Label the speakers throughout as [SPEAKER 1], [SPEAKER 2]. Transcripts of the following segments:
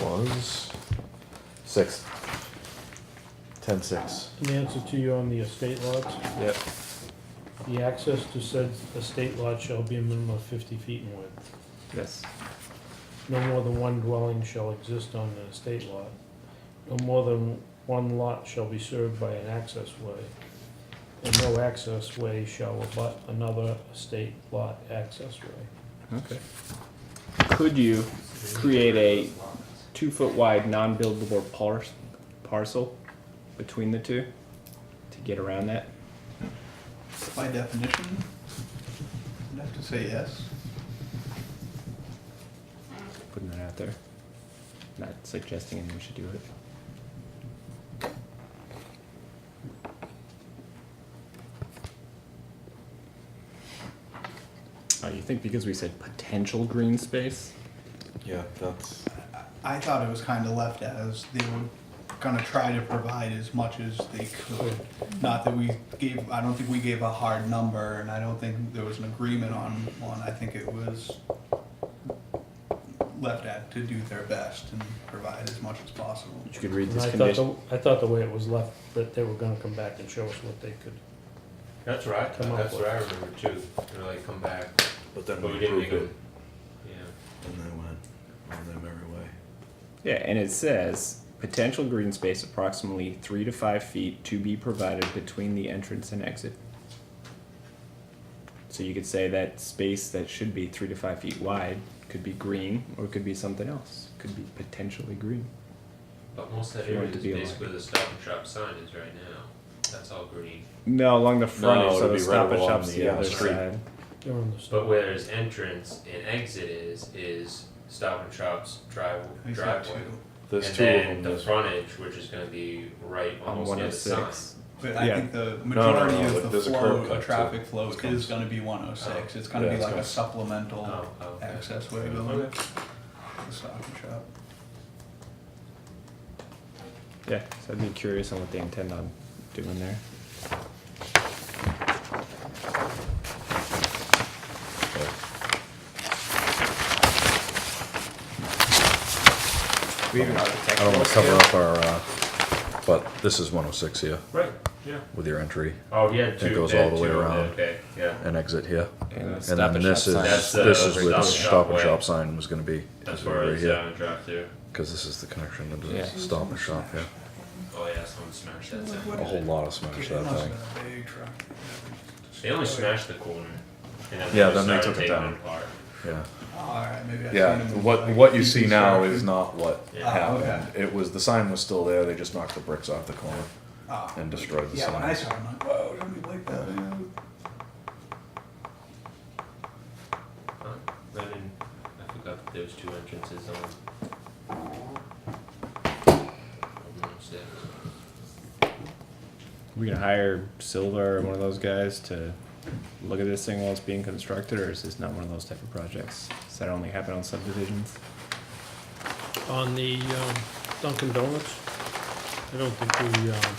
[SPEAKER 1] was six. Ten six.
[SPEAKER 2] In answer to you on the estate lots,
[SPEAKER 1] Yep.
[SPEAKER 2] the access to said estate lot shall be a minimum of fifty feet in width.
[SPEAKER 3] Yes.
[SPEAKER 2] No more than one dwelling shall exist on an estate lot. No more than one lot shall be served by an access way. And no access way shall abut another estate lot access way.
[SPEAKER 3] Okay. Could you create a two foot wide non buildable par- parcel between the two to get around that?
[SPEAKER 4] By definition, I'd have to say yes.
[SPEAKER 3] Putting that out there. Not suggesting anyone should do it. Oh, you think because we said potential green space?
[SPEAKER 1] Yeah, that's
[SPEAKER 4] I thought it was kind of left as they were gonna try to provide as much as they could. Not that we gave, I don't think we gave a hard number, and I don't think there was an agreement on one. I think it was left at to do their best and provide as much as possible.
[SPEAKER 3] You could read
[SPEAKER 2] And
[SPEAKER 3] this
[SPEAKER 2] I thought,
[SPEAKER 3] condition.
[SPEAKER 2] the- I thought the way it was left, that they were gonna come back and show us what they could.
[SPEAKER 5] That's right,
[SPEAKER 2] Come up
[SPEAKER 5] that's
[SPEAKER 2] with.
[SPEAKER 5] what I remember too, they were like, come back,
[SPEAKER 1] but
[SPEAKER 5] but
[SPEAKER 1] then
[SPEAKER 5] we
[SPEAKER 1] we
[SPEAKER 5] didn't
[SPEAKER 1] approved
[SPEAKER 5] make them.
[SPEAKER 1] it
[SPEAKER 5] Yeah.
[SPEAKER 1] and they went on their merry way.
[SPEAKER 3] Yeah, and it says potential green space approximately three to five feet to be provided between the entrance and exit. So you could say that space that should be three to five feet wide could be green or it could be something else. Could be potentially green.
[SPEAKER 5] But most of
[SPEAKER 3] If
[SPEAKER 5] that
[SPEAKER 3] you
[SPEAKER 5] area
[SPEAKER 3] want it
[SPEAKER 5] is
[SPEAKER 3] to be alive.
[SPEAKER 5] basically the stop and shop sign is right now, that's all green.
[SPEAKER 3] No, along the front,
[SPEAKER 1] No,
[SPEAKER 3] so
[SPEAKER 1] it'd
[SPEAKER 3] the
[SPEAKER 1] be right
[SPEAKER 3] stop and
[SPEAKER 1] along
[SPEAKER 3] shop's the,
[SPEAKER 1] the, uh,
[SPEAKER 3] other
[SPEAKER 1] street.
[SPEAKER 3] side.
[SPEAKER 2] They're on the side.
[SPEAKER 5] But where there's entrance and exit is, is stop and shop's drive,
[SPEAKER 4] He's got
[SPEAKER 5] driveway.
[SPEAKER 4] two.
[SPEAKER 1] There's
[SPEAKER 5] And
[SPEAKER 1] two
[SPEAKER 5] then
[SPEAKER 1] of them.
[SPEAKER 5] the
[SPEAKER 1] there's-
[SPEAKER 5] frontage, which is gonna be right
[SPEAKER 3] On
[SPEAKER 5] almost
[SPEAKER 3] one
[SPEAKER 5] near
[SPEAKER 3] oh
[SPEAKER 5] the sign.
[SPEAKER 3] six.
[SPEAKER 4] But I
[SPEAKER 3] Yeah.
[SPEAKER 4] think the
[SPEAKER 1] no,
[SPEAKER 4] majority
[SPEAKER 1] no,
[SPEAKER 4] of the
[SPEAKER 1] there's a
[SPEAKER 4] flow,
[SPEAKER 1] curb cut
[SPEAKER 4] the
[SPEAKER 1] too.
[SPEAKER 4] traffic flow
[SPEAKER 1] It's coming.
[SPEAKER 4] is gonna be one oh six. It's gonna
[SPEAKER 1] Yeah,
[SPEAKER 4] be
[SPEAKER 1] it's
[SPEAKER 4] like a
[SPEAKER 1] coming.
[SPEAKER 4] supplemental
[SPEAKER 5] Oh, okay.
[SPEAKER 4] access way going
[SPEAKER 5] Okay.
[SPEAKER 4] to the stop and shop.
[SPEAKER 3] Yeah, so I'd be curious on what they intend on doing there. We have an
[SPEAKER 1] I
[SPEAKER 3] architectural
[SPEAKER 1] don't want to
[SPEAKER 3] scale.
[SPEAKER 1] cover up our, uh, but this is 106 here
[SPEAKER 5] Right, yeah.
[SPEAKER 1] with your entry
[SPEAKER 5] Oh, yeah, two,
[SPEAKER 1] goes
[SPEAKER 5] they
[SPEAKER 1] all
[SPEAKER 5] had
[SPEAKER 1] the way
[SPEAKER 5] two of them,
[SPEAKER 1] around.
[SPEAKER 5] okay, yeah,
[SPEAKER 1] and exit here.
[SPEAKER 3] And the
[SPEAKER 1] And
[SPEAKER 3] Stop
[SPEAKER 1] then
[SPEAKER 3] and
[SPEAKER 1] this
[SPEAKER 3] Shop sign.
[SPEAKER 1] is,
[SPEAKER 5] That's the
[SPEAKER 1] this is where the
[SPEAKER 5] stop and shop
[SPEAKER 1] uh, stop and
[SPEAKER 5] way.
[SPEAKER 1] shop sign was gonna be.
[SPEAKER 5] that's
[SPEAKER 1] is
[SPEAKER 5] where
[SPEAKER 1] right
[SPEAKER 5] it's uh,
[SPEAKER 1] here,
[SPEAKER 5] down and drive through,
[SPEAKER 1] Cause this is the connection to
[SPEAKER 3] Yeah.
[SPEAKER 1] the stop and shop here.
[SPEAKER 5] oh yeah, someone smashed that
[SPEAKER 4] Like,
[SPEAKER 5] sign.
[SPEAKER 4] what
[SPEAKER 1] A whole lot of smash
[SPEAKER 4] It
[SPEAKER 1] that
[SPEAKER 4] must
[SPEAKER 1] thing.
[SPEAKER 4] have been a big truck.
[SPEAKER 5] They only smashed the corner. and
[SPEAKER 1] Yeah,
[SPEAKER 5] just
[SPEAKER 1] then they
[SPEAKER 5] started
[SPEAKER 1] took it
[SPEAKER 5] taking
[SPEAKER 1] down.
[SPEAKER 5] apart.
[SPEAKER 1] Yeah.
[SPEAKER 4] Alright, maybe I've
[SPEAKER 1] Yeah,
[SPEAKER 4] seen them
[SPEAKER 1] what
[SPEAKER 4] like
[SPEAKER 1] what you see
[SPEAKER 4] deconstructed.
[SPEAKER 1] now is not what
[SPEAKER 5] Yeah.
[SPEAKER 4] Oh,
[SPEAKER 1] happened. It was the sign was still there. They just knocked the bricks off the corner
[SPEAKER 4] Oh.
[SPEAKER 1] and destroyed the
[SPEAKER 4] Yeah,
[SPEAKER 1] sign.
[SPEAKER 4] when I saw it, I'm like, whoa, don't be like that.
[SPEAKER 5] Huh? I didn't, I forgot that there was two entrances on. on one side.
[SPEAKER 3] We gonna hire Silver or one of those guys to look at this thing while it's being constructed, or is this not one of those type of projects? Does that only happen on subdivisions?
[SPEAKER 2] On the um, Dunkin' Donuts, I don't think we, um,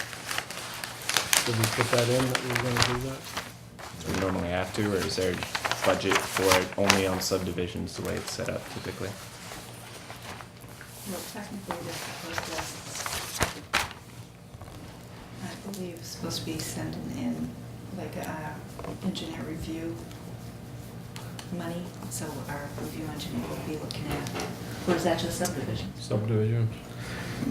[SPEAKER 2] did we put that in, that we were gonna do that?
[SPEAKER 3] Do we normally have to, or is there budget for it only on subdivisions the way it's set up typically?
[SPEAKER 6] Well, technically, this is supposed to, I believe, it's supposed to be sending in like a uh, engineer review money, so our review engineer will be looking at, or is that just subdivisions?
[SPEAKER 2] Subdivision.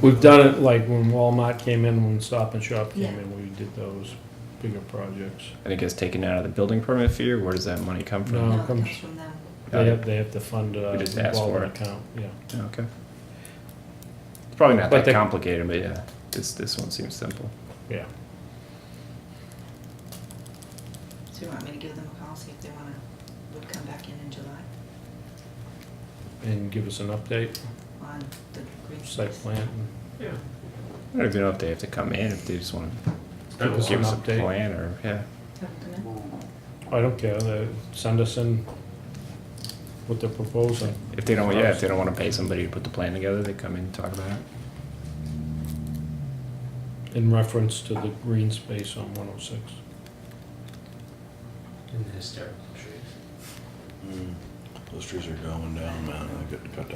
[SPEAKER 2] We've done it like when Walmart came in, when Stop and Shop came
[SPEAKER 6] Yeah.
[SPEAKER 2] in, we did those bigger projects.
[SPEAKER 3] And it gets taken out of the building permit fee, or where does that money come
[SPEAKER 2] No,
[SPEAKER 3] from?
[SPEAKER 6] No,
[SPEAKER 2] it
[SPEAKER 6] it
[SPEAKER 2] uh, comes-
[SPEAKER 6] comes from them.
[SPEAKER 3] Got
[SPEAKER 2] They
[SPEAKER 3] it.
[SPEAKER 2] have, they have to fund a
[SPEAKER 3] We just ask for
[SPEAKER 2] revolving
[SPEAKER 3] it.
[SPEAKER 2] account, yeah.
[SPEAKER 3] Okay. It's probably not
[SPEAKER 2] But
[SPEAKER 3] that
[SPEAKER 2] the-
[SPEAKER 3] complicated, but yeah, this, this one seems simple.
[SPEAKER 2] Yeah,
[SPEAKER 6] So you want me to give them a call, see if they wanna, would come back in in July
[SPEAKER 2] and give us an update,
[SPEAKER 6] on the green
[SPEAKER 2] site
[SPEAKER 6] space?
[SPEAKER 2] plan.
[SPEAKER 5] Yeah.
[SPEAKER 3] I don't even know if they have to come in, if they just wanna
[SPEAKER 5] It's been a
[SPEAKER 2] Give us an
[SPEAKER 3] give
[SPEAKER 5] while.
[SPEAKER 3] us a
[SPEAKER 2] update.
[SPEAKER 3] plan, or, yeah.
[SPEAKER 6] Have them come in?
[SPEAKER 2] I don't care, they, send us in what they're proposing.
[SPEAKER 3] If they don't, yeah, if they don't wanna pay somebody to put the plan together, they come in and talk about it.
[SPEAKER 2] in reference to the green space on 106.
[SPEAKER 5] In the hysterical trees.
[SPEAKER 1] mm, Those trees are going down, man. I get cut down.